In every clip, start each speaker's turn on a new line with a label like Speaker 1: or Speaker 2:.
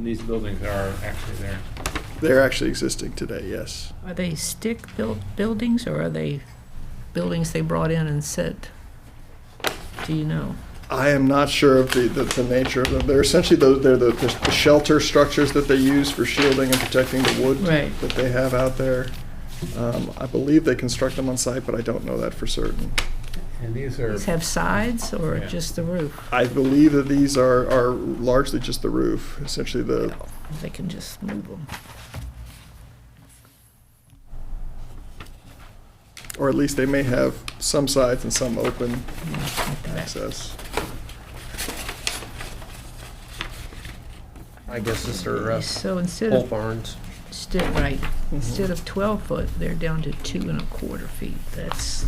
Speaker 1: these buildings are actually there.
Speaker 2: They're actually existing today, yes.
Speaker 3: Are they stick-built buildings, or are they buildings they brought in and set? Do you know?
Speaker 2: I am not sure of the, the, the nature of them. They're essentially those, they're the, the shelter structures that they use for shielding and protecting the wood
Speaker 3: Right.
Speaker 2: that they have out there. Um, I believe they construct them on site, but I don't know that for certain.
Speaker 1: And these are,
Speaker 3: These have sides, or
Speaker 1: Yeah.
Speaker 3: just the roof?
Speaker 2: I believe that these are, are largely just the roof, essentially
Speaker 4: Uh,
Speaker 2: the,
Speaker 3: They can just move them.
Speaker 2: or at least they may have some sides and some open
Speaker 3: like that.
Speaker 2: access.
Speaker 5: I guess this are uh,
Speaker 3: So instead
Speaker 5: pole
Speaker 3: of,
Speaker 5: barns.
Speaker 3: instead, right,
Speaker 4: Mhm.
Speaker 2: Mm-hmm.
Speaker 3: instead of 12 foot, they're down to two and a quarter feet. That's.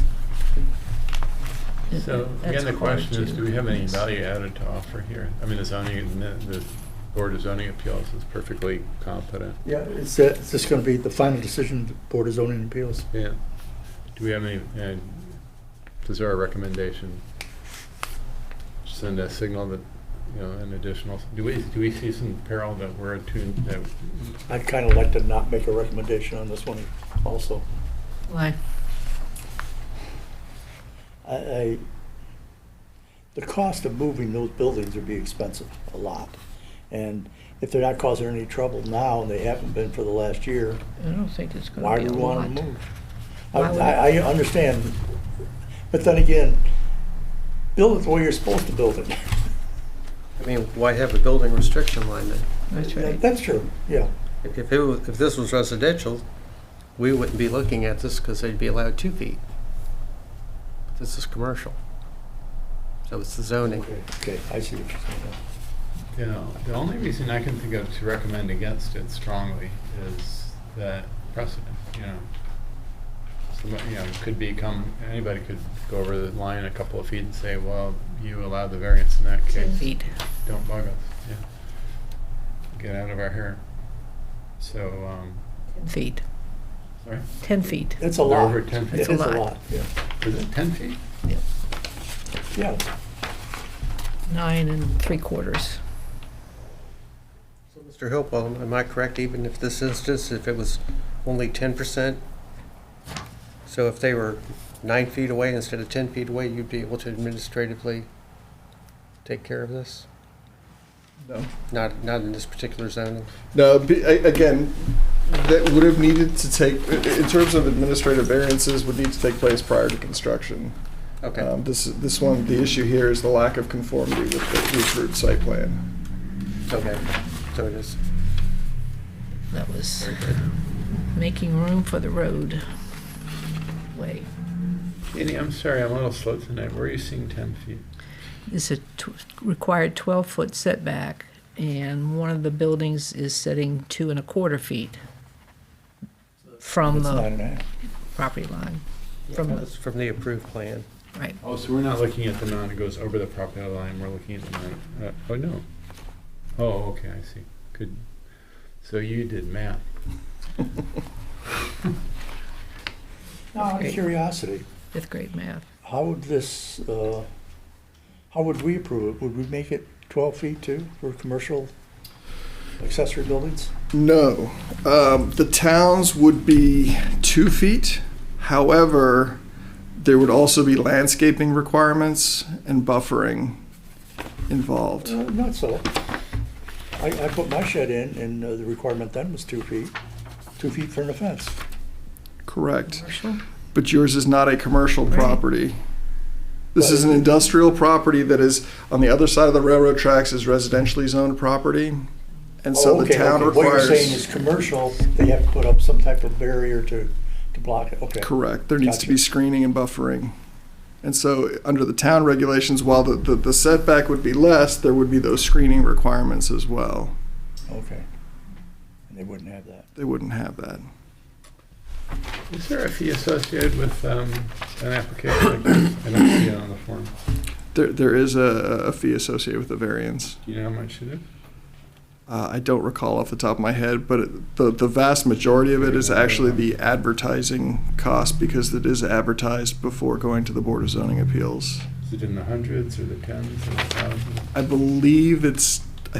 Speaker 1: so
Speaker 3: that's
Speaker 1: again, the
Speaker 3: hard
Speaker 1: question is,
Speaker 3: to-
Speaker 1: do we have any value added to offer here? I mean, the zoning, the Board of Zoning Appeals is perfectly competent.
Speaker 4: Yeah, is that, is this gonna be the final decision of the Board of Zoning Appeals?
Speaker 1: Yeah. Do we have any, and is there a recommendation? Send a signal that, you know, an additional, do we, do we see some peril that we're attuned, that,
Speaker 4: I'd kinda like to not make a recommendation on this one also.
Speaker 3: Like,
Speaker 4: I, I, the cost of moving those buildings would be expensive, a lot. And if they're not causing any trouble now, and they haven't been for the last year,
Speaker 3: I don't think it's
Speaker 4: why
Speaker 3: going to
Speaker 4: do we
Speaker 3: be a
Speaker 4: want
Speaker 3: lot.
Speaker 4: them to move? I,
Speaker 3: Why would-
Speaker 4: I I understand, but then again, build it the way you're supposed to build it.
Speaker 5: I mean, why have a building restriction line then?
Speaker 3: That's right.
Speaker 4: That's true, yeah.
Speaker 5: If if it was, if this was residential, we wouldn't be looking at this because they'd be allowed two feet. But This is commercial. So it's the zoning.
Speaker 4: Okay, okay, I see what you're saying. now.
Speaker 1: you know, the only reason I can think of to recommend against it strongly is that precedent, you know. Somebody, you know, could become, anybody could go over the line a couple of feet and say, well, you allowed the variance in that case.
Speaker 3: 10 feet.
Speaker 1: Don't bug us, yeah. Get out of our hair. So, um,
Speaker 3: 10 feet.
Speaker 1: sorry,
Speaker 3: 10 feet.
Speaker 4: It's a
Speaker 1: They're
Speaker 4: lot.
Speaker 1: over 10 feet.
Speaker 4: It
Speaker 3: It's a
Speaker 4: is
Speaker 3: lot.
Speaker 4: yeah.
Speaker 1: is it ten feet?
Speaker 4: Yeah,
Speaker 3: Nine and three quarters.
Speaker 5: So, Mr. Hillbaum, am I correct, even if this instance, if it was only ten percent? So if they were nine feet away instead of ten feet away, you'd be able to administratively take care of this?
Speaker 2: No.
Speaker 5: Not, not in this particular zoning?
Speaker 2: No, be- a- again, that would have needed to take, i- i- in terms of administrative variances, would need to take place prior to construction.
Speaker 5: Okay,
Speaker 2: Um, This, this one, the issue here is the lack of conformity with the Roof Root site plan.
Speaker 5: okay, so it is.
Speaker 3: That was making room for the road way.
Speaker 1: Katie, I'm sorry, I'm a little slow tonight. Where are you seeing ten feet?
Speaker 3: It's a tw- required 12-foot setback, and one of the buildings is setting two and a quarter feet from
Speaker 4: it's nine
Speaker 3: the
Speaker 4: and a half.
Speaker 3: property line, from the,
Speaker 5: That's From the approved plan.
Speaker 3: right.
Speaker 1: Oh, so we're not looking at the amount that goes over the property line, we're looking at the amount, uh, oh, no. Oh, okay, I see. Good. So you did math.
Speaker 4: Now, out
Speaker 3: Okay.
Speaker 4: of curiosity,
Speaker 3: Fifth grade math.
Speaker 4: how would this, uh, how would we approve it? Would we make it 12 feet too for commercial accessory buildings?
Speaker 2: No, um, the towns would be two feet. However, there would also be landscaping requirements and buffering involved.
Speaker 4: Uh, Not so. I, I put my shed in and uh, the requirement then was two feet, two feet for an offense.
Speaker 2: Correct.
Speaker 3: Commercial?
Speaker 2: but yours is not a commercial property. This is an industrial property that is on the other side of the railroad tracks is residentially zoned property. And so the
Speaker 4: Oh, okay,
Speaker 2: town
Speaker 4: okay. What you're saying is
Speaker 2: requires,
Speaker 4: commercial, they have to put up some type of barrier to, to block it, okay.
Speaker 2: correct, there needs to be
Speaker 4: Gotcha.
Speaker 2: screening and buffering. And so under the town regulations, while the, the- the setback would be less, there would be those screening requirements as well.
Speaker 4: Okay. And they wouldn't have that.
Speaker 2: They wouldn't have that.
Speaker 1: Is there a fee associated with, um, an application like this? I don't see it on the form.
Speaker 2: There, there is a, a fee associated with the variance.
Speaker 1: Do you know how much it is?
Speaker 2: Uh, I don't recall off the top of my head, but it- the, the vast majority of it is actually the advertising cost because it is advertised before going to the Board of Zoning Appeals.
Speaker 1: Is it in the hundreds or the tens or the thousands?
Speaker 2: I believe it's